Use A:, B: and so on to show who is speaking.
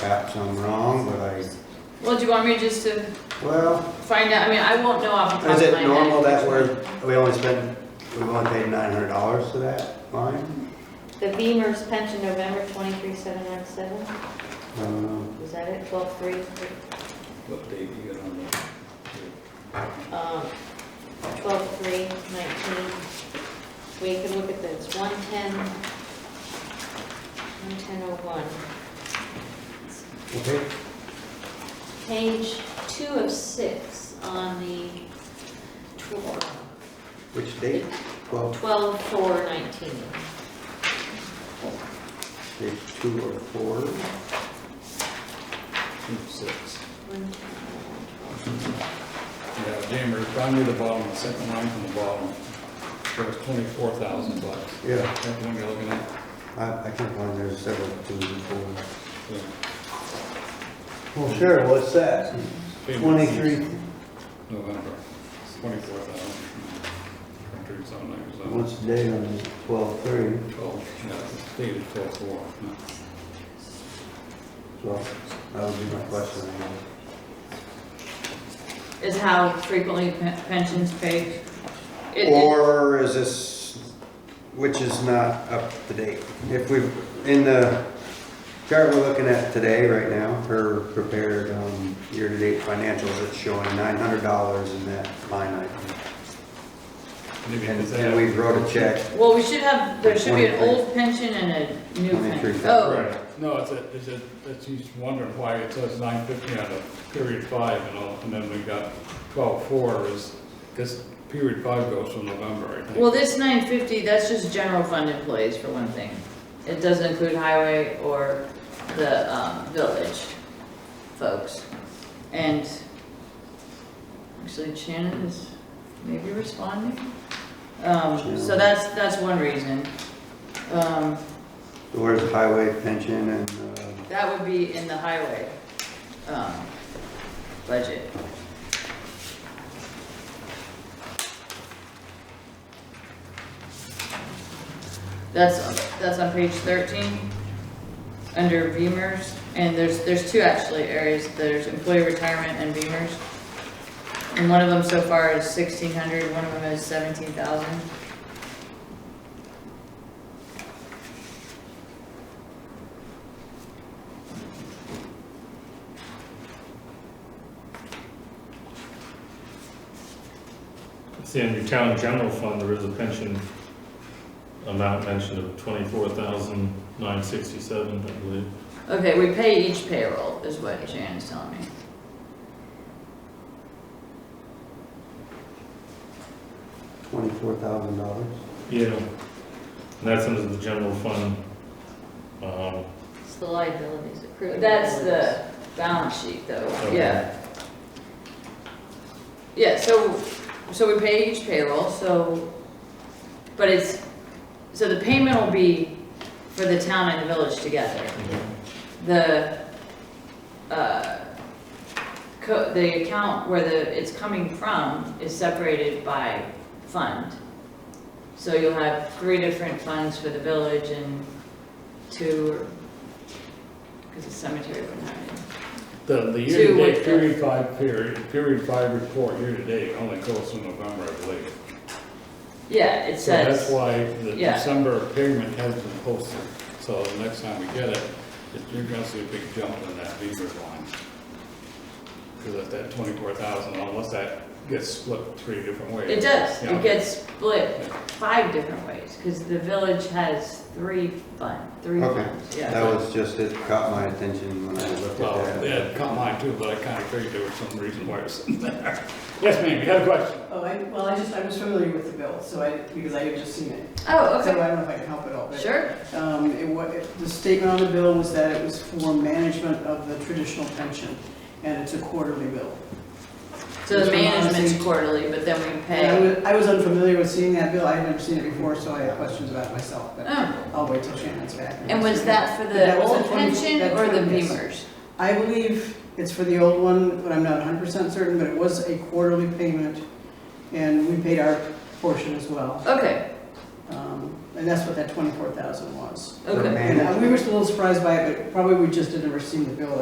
A: perhaps I'm wrong, but I,
B: Well, do you want me just to
A: well,
B: find out, I mean, I won't know off the top
A: is
B: of my head.
A: it normal that we're, we only spend, we've only paid nine hundred dollars to that line?
C: The Beamer's pension November twenty-three seven nine seven,
A: Um,
C: was that it, twelve three?
D: What date you got on that?
C: Um, twelve three nineteen. We can look at this, one ten, one ten oh one.
A: Okay,
C: Page two of six on the
A: which date? Twelve,
C: twelve four nineteen.
A: page two or four?
D: Two, six.
C: One ten oh one,
D: Yeah, January, find me the bottom, the second line from the bottom. There was twenty-four thousand bucks.
A: Yeah,
D: That's the one you're looking at?
A: I, I can't find there's several twos and fours.
D: Yeah.
A: Well, sure, what's that? Twenty-three,
D: November, twenty-four thousand. Country's on there, so.
A: what's the date on this? Twelve-three,
D: Twelve, yeah, it's dated twelve-four.
A: so that would be my question.
B: Is how frequently pe- pensions paid. It- it-
A: Or is this, which is not up to date? If we, in the chart we're looking at today, right now, her prepared um, year-to-date financials, it's showing nine hundred dollars in that line item.
D: Maybe
A: And
D: it's
A: and we wrote a check,
B: Well, we should have, there should be an
A: 23.
B: old pension and a new
A: 23.
B: pension. Oh,
D: Right, no, it's a, it's a, it's, he's wondering why it says nine fifty out of period five and all, and then we got twelve-four is, because period five goes from November, I think.
B: well, this nine fifty, that's just general fund employees for one thing. It doesn't include highway or the, um, village folks. And actually Shannon is maybe responding. Um, so
A: Shannon.
B: that's, that's one reason. Um,
A: where's highway pension and, uh,
B: That would be in the highway, um, budget. That's, that's on page thirteen, under Beamers, and there's, there's two actually areas, there's employee retirement and Beamers. And one of them so far is sixteen hundred. One of them is seventeen thousand.
E: See, in your town general fund, there is a pension amount mentioned of twenty-four thousand nine sixty-seven, I believe.
B: Okay, we pay each payroll, is what Shannon's telling me.
A: twenty-four thousand dollars?
E: Yeah. And that's under the general fund. Um,
C: It's the liabilities accrued.
B: That's
C: liabilities.
B: the balance sheet though,
E: Okay.
B: yeah. Yeah, so, so we pay each payroll, so, but it's, so the payment will be for the town and the village together. The, uh, co, the account where the, it's coming from is separated by fund. So you'll have three different funds for the village and two, or because the cemetery wouldn't have any.
D: The, the
B: Two
D: year-to-date,
B: with the-
D: period five, period, period five report, year-to-date, only goes from November, I believe.
B: Yeah, it
D: So that's
B: says,
D: why the
B: yeah.
D: December payment has been posted, so the next time we get it, it- you're gonna see a big jump in that Beaver line. Because at that twenty-four thousand, unless that gets split three different ways.
B: it does,
D: Yeah.
B: it gets split five different ways, because the village has three fund, three
A: Okay.
B: funds,
A: That
B: yeah.
A: was just, it caught my attention when I looked
D: Well,
A: at that.
D: yeah, caught mine too, but I kinda figured there was some reason why it was in there. Yes, ma'am, you had a question?
F: Oh, I, well, I just, I was familiar with the bill, so I, because I had just seen it.
B: Oh,
F: So I
B: okay,
F: don't know if I can help at all. but,
B: sure,
F: Um, it wa, it- the statement on the bill was that it was for management of the traditional pension, and it's a quarterly bill.
B: so the
F: Which reminds
B: management's
F: me-
B: quarterly, but then we
F: And I
B: pay,
F: was, I was unfamiliar with seeing that bill, I had never seen it before, so I had questions about it myself, but
B: oh,
F: I'll wait till Shannon's back.
B: and was that for
F: That
B: the
F: was the
B: old
F: 20
B: pension
F: that
B: or the
F: 20, yes.
B: Beamers?
F: I believe it's for the old one, but I'm not hundred percent certain, but it was a quarterly payment, and we paid our portion as well.
B: Okay,
F: Um, and that's what that twenty-four thousand was.
A: The
B: Okay.
A: man-
F: And uh, we were just a little surprised by it, but probably we just had never seen the bill